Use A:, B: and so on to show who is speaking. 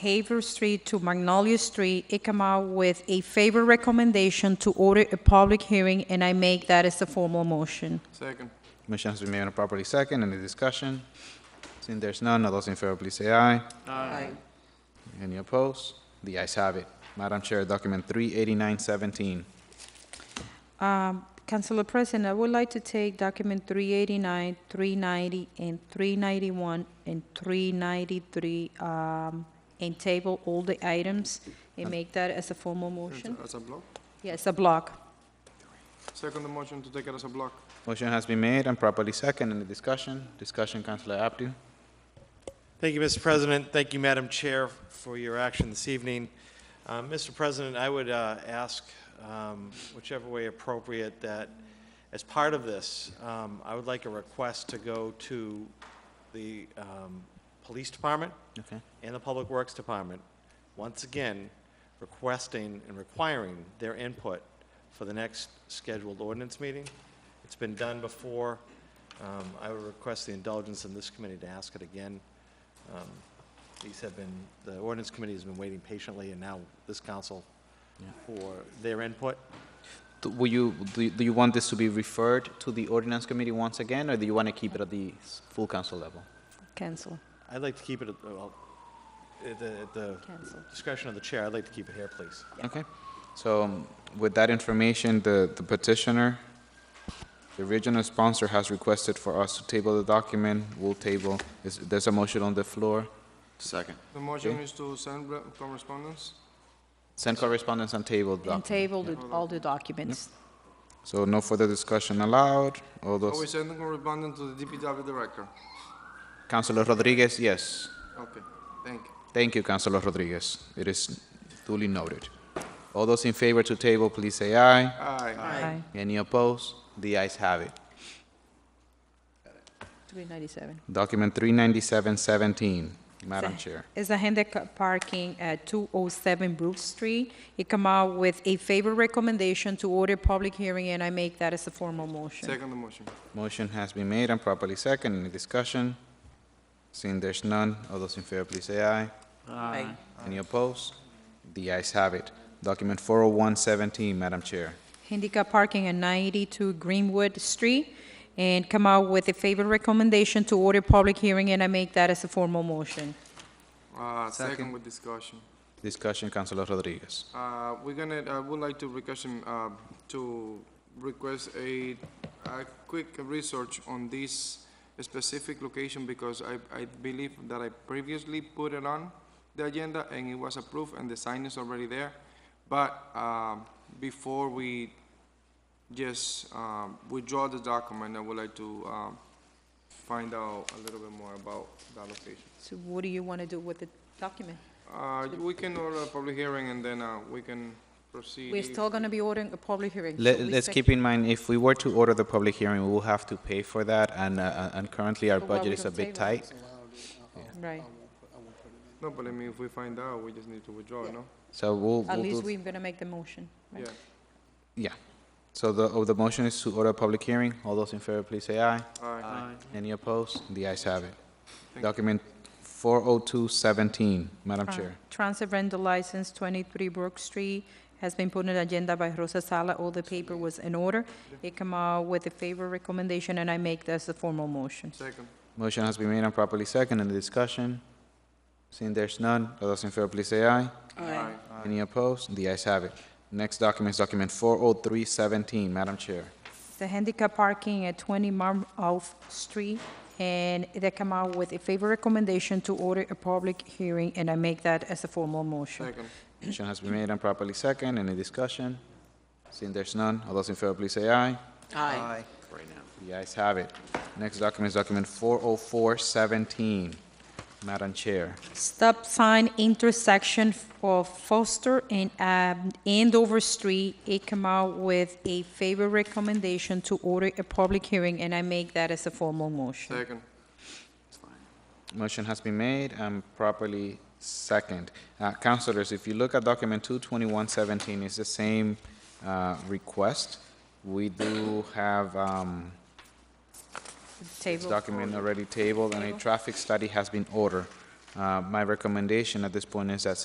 A: Haver Street to Magnolia Street. It come out with a favor recommendation to order a public hearing, and I make that as a formal motion.
B: Second.
C: Motion has been made and properly second. Any discussion? Seeing there's none, all those in favor, please say aye.
B: Aye.
C: Any opposed? The ayes have it. Madam Chair, document 38917.
A: Um, Councilor President, I would like to take document 389, 390, and 391, and 393, um, and table all the items, and make that as a formal motion.
B: As a block?
A: Yes, a block.
B: Second the motion to take it as a block.
C: Motion has been made and properly second. Any discussion? Discussion, Councilor Abdu.
D: Thank you, Mr. President. Thank you, Madam Chair, for your action this evening. Uh, Mr. President, I would uh, ask, um, whichever way appropriate, that as part of this, um, I would like a request to go to the um, Police Department
C: Okay.
D: and the Public Works Department, once again, requesting and requiring their input for the next scheduled ordinance meeting. It's been done before. Um, I would request the indulgence of this committee to ask it again. Um, These have been, the ordinance committee has been waiting patiently, and now this council for their input.
C: Do- Will you, do you- do you want this to be referred to the ordinance committee once again, or do you want to keep it at the s- full council level?
A: Cancel,
D: I'd like to keep it at, well, at the- at the
A: cancel.
D: discretion of the chair, I'd like to keep it here, please.
C: Okay. So um, with that information, the the petitioner, the original sponsor has requested for us to table the document. We'll table. Is- There's a motion on the floor.
E: Second.
B: The motion
C: Okay.
B: is to send re- correspondence.
C: Send correspondence and table the
A: And
C: document.
A: table the- all the documents.
C: So no further discussion allowed. All
B: Are we
C: those,
B: sending correspondence to the DPW director?
C: Councilor Rodriguez, yes.
B: Okay, thank you.
C: Thank you, Councilor Rodriguez. It is duly noted. All those in favor to table, please say aye.
B: Aye.
A: Aye.
C: Any opposed? The ayes have it.
A: 397.
C: Document 39717, Madam
A: Sir.
C: Chair.
A: It's a handicap parking at 207 Brook Street. It come out with a favor recommendation to order public hearing, and I make that as a formal motion.
B: Second the motion.
C: Motion has been made and properly second. Any discussion? Seeing there's none, all those in favor, please say aye.
A: Aye.
C: Any opposed? The ayes have it. Document 40117, Madam Chair.
A: Handicap parking at 92 Greenwood Street, and come out with a favor recommendation to order public hearing, and I make that as a formal motion.
B: Uh, second
C: Second.
B: with discussion.
C: Discussion, Councilor Rodriguez.
B: Uh, we're gonna, I would like to request, um, uh, to request a, a quick research on this specific location because I, I believe that I previously put it on the agenda and it was approved and the sign is already there. But, um, before we just, um, withdraw the document, I would like to, um, find out a little bit more about that location.
A: So what do you want to do with the document?
B: Uh, we can order a public hearing and then, uh, we can proceed.
A: We're
B: if-
A: still going to be ordering a public hearing. so
C: Let,
A: we
C: let's
A: sec-
C: keep in mind, if we were to order the public hearing, we will have to pay for that, and, uh, and currently our
A: So why we
C: budget is a
A: don't
C: bit
A: table it?
C: tight.
A: Right.
B: No, but I mean, if we find out, we just need to withdraw, no?
C: So we'll,
A: At
C: we'll
A: least
C: do-
A: we're going to make the motion. right?
B: Yeah.
C: yeah. So the, oh, the motion is to order a public hearing. All those in favor, please say aye.
B: Aye.
C: Any opposed? The ayes have it.
B: you.
C: Document 40217, Madam
A: Tran-
C: Chair.
A: Transit rental Uh, license, 23 Brook Street, has been put on the agenda by Rosa Sala. All the paper was in order. It come out with a favor recommendation, and I make this a formal motion.
B: Second.
C: Motion has been made and properly second. Any discussion? Seeing there's none, all those in favor, please say aye.
B: Aye.
C: Any opposed? The ayes have it. Next document is document 40317, Madam Chair.
A: The handicap parking at 20 Marmouth Street, and they come out with a favor recommendation to order a public hearing, and I make that as a formal motion.
B: Second.
C: Motion has been made and properly second. Any discussion? Seeing there's none, all those in favor, please say aye.
E: Aye. Right now.
C: The ayes have it. Next document is document 40417, Madam Chair.
A: Stop sign intersection of Foster and um, Andover Street, it come out with a favor recommendation to order a public hearing, and I make that as a formal motion.
B: Second.
E: It's fine.
C: Motion has been made and properly second. Uh, Councilors, if you look at document 22117, it's the same uh, request. We do have um, this
A: Table.
C: document already tabled, and a traffic study has been ordered. Uh, My recommendation at this point is that since